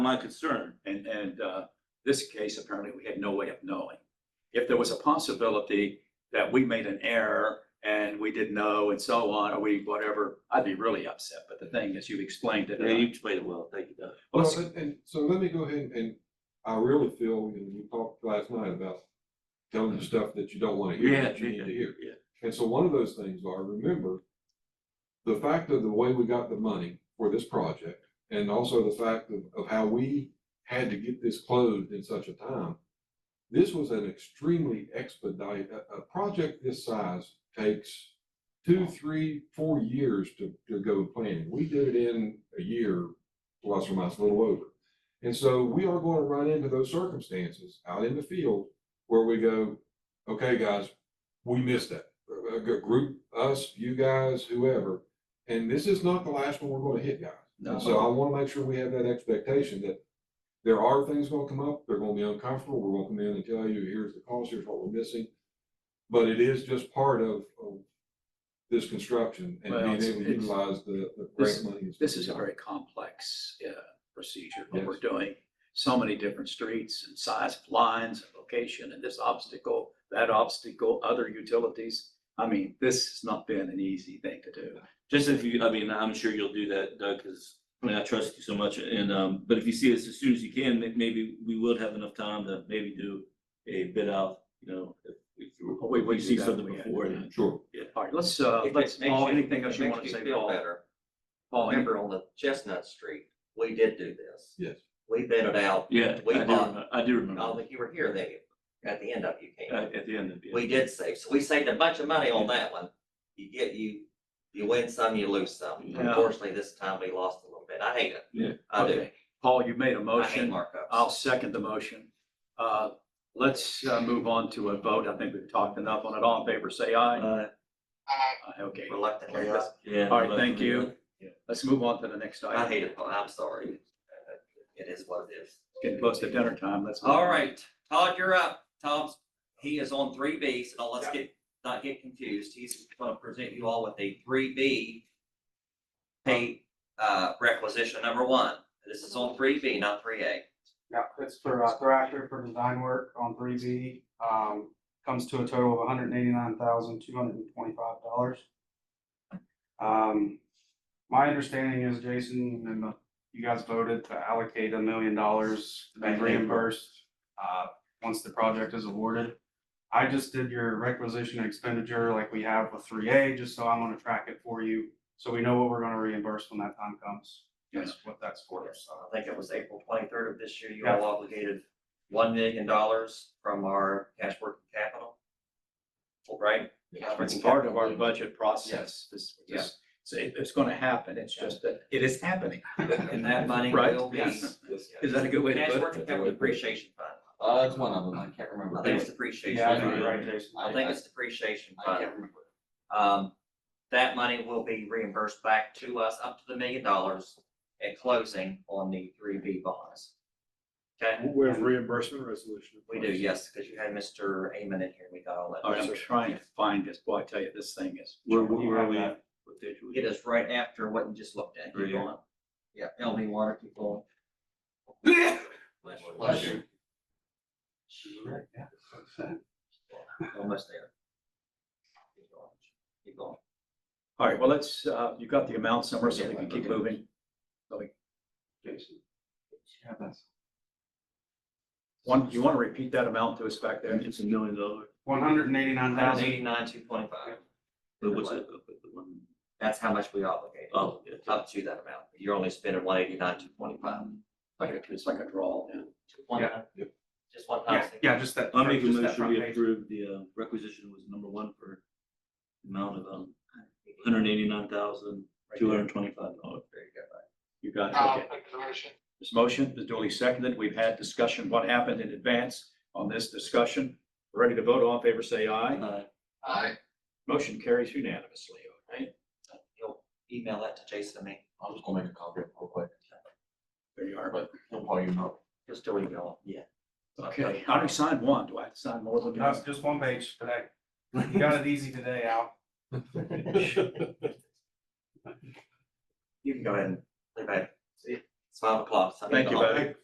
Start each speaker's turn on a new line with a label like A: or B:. A: my concern.
B: And, and, uh, this case, apparently we had no way of knowing. If there was a possibility that we made an error and we didn't know and so on, or we, whatever, I'd be really upset. But the thing is, you've explained it. Uh, and
A: Yeah,
B: I-
A: you explained it well, thank you, Doug.
B: Well,
C: Well,
B: let's-
C: and, and so let me go ahead and, I really feel, and we talked last night about telling the stuff that you don't wanna hear, that you need to hear.
A: yeah.
C: And so one of those things are, remember, the fact of the way we got the money for this project, and also the fact of, of how we had to get this closed in such a time. This was an extremely expedite, a, a project this size takes two, three, four years to, to go planning. We did it in a year, plus or minus a little over. And so we are going to run into those circumstances out in the field where we go, okay, guys, we missed that. A a group, us, you guys, whoever. And this is not the last one we're going to hit, guys.
B: No.
C: And so I want to make sure we have that expectation that there are things going to come up. They're going to be uncomfortable. We're going to come in and tell you, here's the cost, here's what we're missing. But it is just part of, of this construction and
B: Well,
C: being
B: it's-
C: able to
B: it's-
C: utilize the, the
B: this-
C: grant money.
B: This is a very complex uh, procedure, what
C: Yes.
B: we're doing. So many different streets and size of lines, and location, and this obstacle, that obstacle, other utilities. I mean, this has not been an easy thing to do.
A: Just if you, I mean, I'm sure you'll do that, Doug, because I mean, I trust you so much and, um, but if you see us as soon as you can, may- maybe we would have enough time to maybe do a bid out, you know, if, if you
B: Oh, wait,
A: if you
B: we
A: see
B: do that.
A: something
B: We had-
A: before. then.
C: Sure.
B: All right, let's, uh,
D: If
B: let's,
D: it makes
B: Paul,
D: you-
B: anything else
D: it
B: you
D: makes
B: want to say,
D: feel
B: Paul?
D: Better.
B: Paul, any-
D: Remember on the Chestnut Street, we did do this.
C: Yes.
D: We vetted out,
A: Yeah,
D: We
A: I do,
D: bought-
A: remember- I do
D: all
A: remember, Uh,
D: that you were here, they, at the end of it, you
B: Uh,
D: came.
A: at, at the end of it.
D: We did save, so we saved a bunch of money on that one. You get, you, you win some, you lose some.
A: Yeah.
D: Unfortunately, this time we lost a little bit. I hate it.
A: Yeah.
D: I do.
B: Okay. Paul, you made a
D: I hate
B: motion. I'll
D: markups.
B: second the motion. Uh, Let's uh, move on to a vote. I think we've talked enough on it. All in favor, say aye.
A: Uh,
B: Aye, Okay,
D: Reluctantly, I-
A: yeah.
B: All right,
A: but-
B: thank you. let's move on to the next
D: I
B: item.
D: hate it. I'm sorry. Uh, It is what it is.
B: Getting close to dinner time. Let's. move
D: All
B: on.
D: right, Todd, you're up. Tom's, he is on three B, so let's get, not get confused. He's gonna present you all with a three B pay, uh, requisition number one. This is on three B, not three A.
E: Yeah, it's for uh, Thrasher for design work on three B, um, comes to a total of hundred and eighty-nine thousand, two hundred and twenty-five dollars. Um, my understanding is, Jason, and the- you guys voted to allocate a million dollars to be
D: Right.
E: reimbursed, uh, once the project is awarded. I just did your requisition expenditure like we have with three A, just so I'm gonna track it for you, so we know what we're gonna reimburse when that time comes. That's what that's for,
D: Yes,
E: so.
D: Uh, I think it was April twenty-third of this year, you all obligated one million dollars from our cash working capital. Right?
C: Yeah.
B: It's part of our budget process. This, this, so it- it's gonna happen. It's just that it is happening.
D: And that money
B: Right,
D: will be.
B: yes. Is that a good way to
D: Cash
B: put
D: working
B: it?
D: capital depreciation fund.
F: Uh, it's one of them, I can't remember.
D: I think it's depreciation.
E: Yeah, I think
D: fund.
E: you're right, Jason.
D: I think it's depreciation
F: I
D: fund.
F: can't remember.
D: Um, that money will be reimbursed back to us up to the million dollars at closing on the three B bonds. Okay,
G: We have reimbursement resolution.
D: we do, yes, because you had Mr. Amen in here, we got all that.
B: All right, I'm trying to find this. Boy, I tell you, this thing is.
A: Where, where
E: You
A: where are
E: have
A: we?
E: that.
A: What page are we?
D: It is right after what you just looked at. Keep
A: Right here.
D: going. Yeah, LB water, keep going. Bless you. Almost there. Keep going. Keep going.
B: All right, well, let's, uh, you got the amount somewhere so we can keep moving.
E: Jason. Yeah, that's.
B: One, you wanna repeat that amount to us back there?
A: It's a million dollars.
E: One hundred and eighty-nine
D: Hundred
E: thousand,
D: eighty-nine, two twenty-five.
A: But what's it, but the one-
D: That's how much we obligated.
A: oh, yeah.
D: Up to that amount. You're only spending one eighty-nine, two twenty-five.
B: Like, a- it's like a draw.
D: One
E: Yeah,
D: time.
C: yep.
D: Just one
E: yeah,
D: time.
E: yeah, just that.
A: I'll make a
E: just that
A: motion,
E: front
A: we
E: page.
A: approve the uh, requisition was number one for amount of um, hundred eighty-nine thousand, two hundred twenty-five dollars.
D: There you go.
B: You got
E: Oh.
B: it, okay. This motion is duly seconded. We've had discussion, what happened in advance on this discussion. Ready to vote, all in favor, say aye. Motion carries unanimously, all right?
D: You'll email that to Jason and me.
F: I'm just gonna make a copy of it real quick,
B: There you are.
F: but he'll call you up.
D: He'll still email it. Yeah.
B: Okay, I only signed one. Do I have to sign more than
E: That's
B: that?
E: just one page today. You got it easy today, Al.
D: You can go ahead and leave it. It's five o'clock. so I need
B: Thank
D: to
B: you,
D: hop.
B: buddy.